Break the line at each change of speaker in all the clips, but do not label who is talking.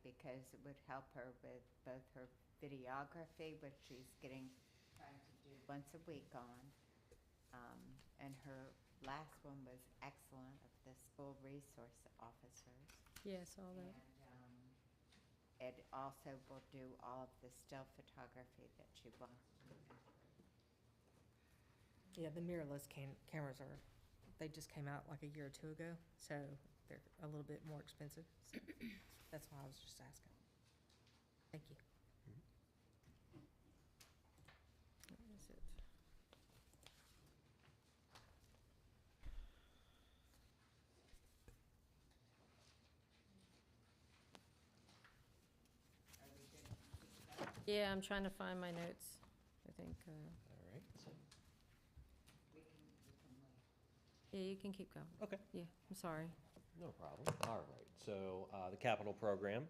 because it would help her with both her videography, which she's getting, trying to do once a week on. Um, and her last one was excellent of the school resource officers.
Yes,
Oh,
all
And,
that.
um, it also will do all of the still photography that she wants.
Yeah, the mirrorless cam- cameras are, they just came out like a year or two ago, so they're a little bit more expensive. so That's why I was just asking. Thank you.
That is it. Yeah, I'm trying to find my notes. I think, uh,
All right.
We can, we can wait.
yeah, you can keep going.
Okay.
Yeah, I'm sorry.
No problem. All right. So uh, the capital program.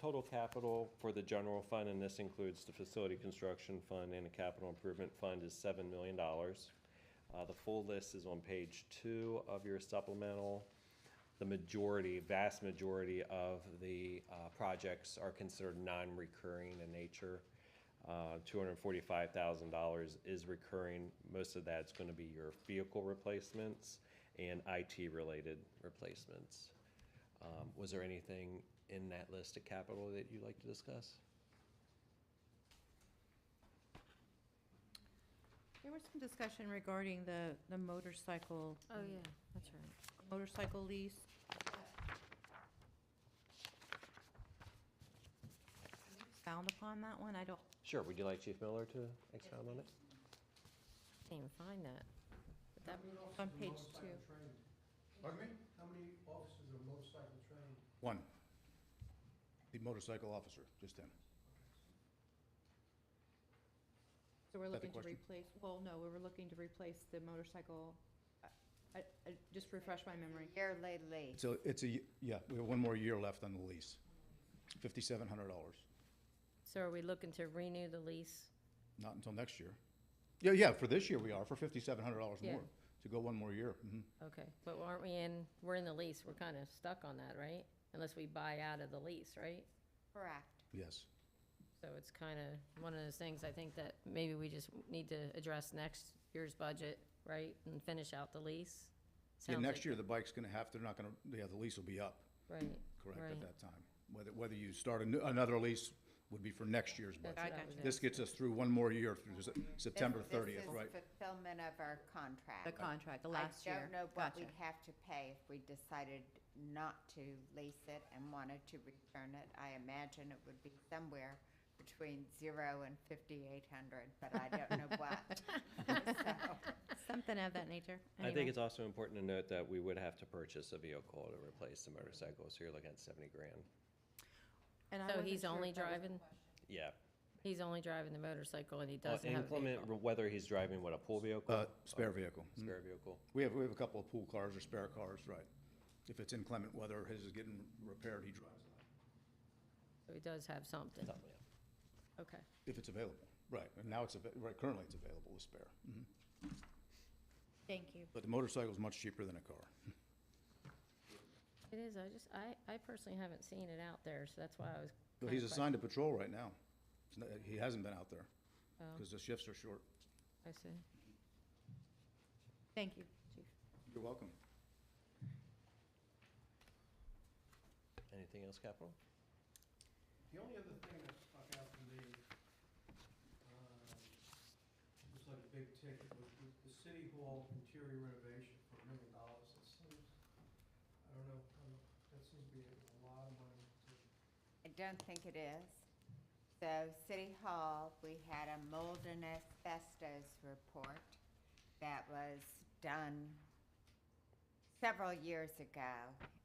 Total capital for the general fund, and this includes the facility construction fund and the capital improvement fund, is $7 million. Uh, The full list is on page two of your supplemental. The majority, vast majority of the uh, projects are considered non-recurring in nature. Uh, $245,000 is recurring. Most of that's going to be your vehicle replacements and IT-related replacements. Um, Was there anything in that list of capital that you'd like to discuss?
There was some discussion regarding the, the motorcycle.
Oh, yeah, that's right.
Motorcycle lease. Found upon that one, I don't,
Sure, would you like Chief Miller to expound on it?
Can't even find that. But that,
on page two.
Pardon me? How many officers are motorcycle trained?
One. The motorcycle officer, just him.
So we're
Is that the
looking to
question?
replace, well, no, we were looking to replace the motorcycle. I- I, I, just refresh my memory.
Yearly lease.
So it's a, yeah, we have one more year left on the lease. Fifty-seven hundred dollars.
so are we looking to renew the lease?
Not until next year. Yeah, yeah, for this year we are, for fifty-seven hundred dollars
Yeah.
more, to go one more year. Mhm.
Okay, but aren't we in, we're in the lease, we're kind of stuck on that, right? Unless we buy out of the lease, right?
Correct.
Yes.
So it's kind of one of those things, I think that maybe we just need to address next year's budget, right? And finish out the lease.
Yeah,
Sounds
next
like-
year the bike's gonna have, they're not gonna, yeah, the lease will be up,
Right.
correct,
right.
at that time. Whether, whether you start a new- another lease would be for next year's
That's
budget.
what I was
This gets us through one more year, through Se- September
This-
thirtieth, right?
This is fulfillment of our contract.
The contract, the last year.
I don't know what
Gotcha.
we'd have to pay if we decided not to lease it and wanted to return it. I imagine it would be somewhere between zero and fifty-eight hundred, but I don't know what.
Something of that nature.
I think it's also important to note that we would have to purchase a vehicle to replace the motorcycle, so you're looking at 70 grand.
So he's only driving,
Yeah.
he's only driving the motorcycle and he
Uh,
doesn't have a
Inclement,
vehicle.
whether he's driving with a pool vehicle? Oh,
Uh, spare vehicle. Mhm.
Spare vehicle.
We have, we have a couple of pool cars or spare cars, right. If it's inclement weather, his is getting repaired, he drives it,
So he does have something,
Something, yeah.
okay.
if it's available. Right, and now it's, ava- right, currently it's available as spare. Mhm.
Thank you.
But the motorcycle is much cheaper than a car.
It is, I just, I, I personally haven't seen it out there, so that's why I was.
But
kinda
he's assigned to patrol right now. It's not- He hasn't been out there, because the shifts are short.
questioning. um, I see.
Thank you, chief.
You're welcome.
Anything else, capital?
The only other thing that stuck out to me, um, was like a big ticket, was the- the city hall interior renovation for a million dollars. It seems, I don't know, I don't know, that seems to be a lot of money to
I don't think it is. So City Hall, we had a mold and asbestos report that was done several years ago.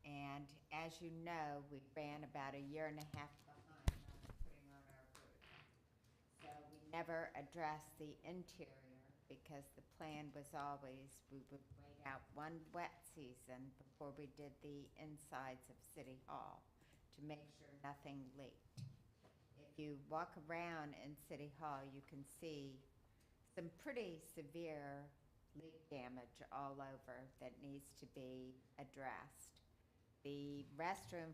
And as you know, we ran about a year and a half behind on putting on our roof. So we never addressed the interior because the plan was always we would wait out one wet season before we did the insides of City Hall to make sure nothing leaked. If you walk around in City Hall, you can see some pretty severe leak damage all over that needs to be addressed. The restroom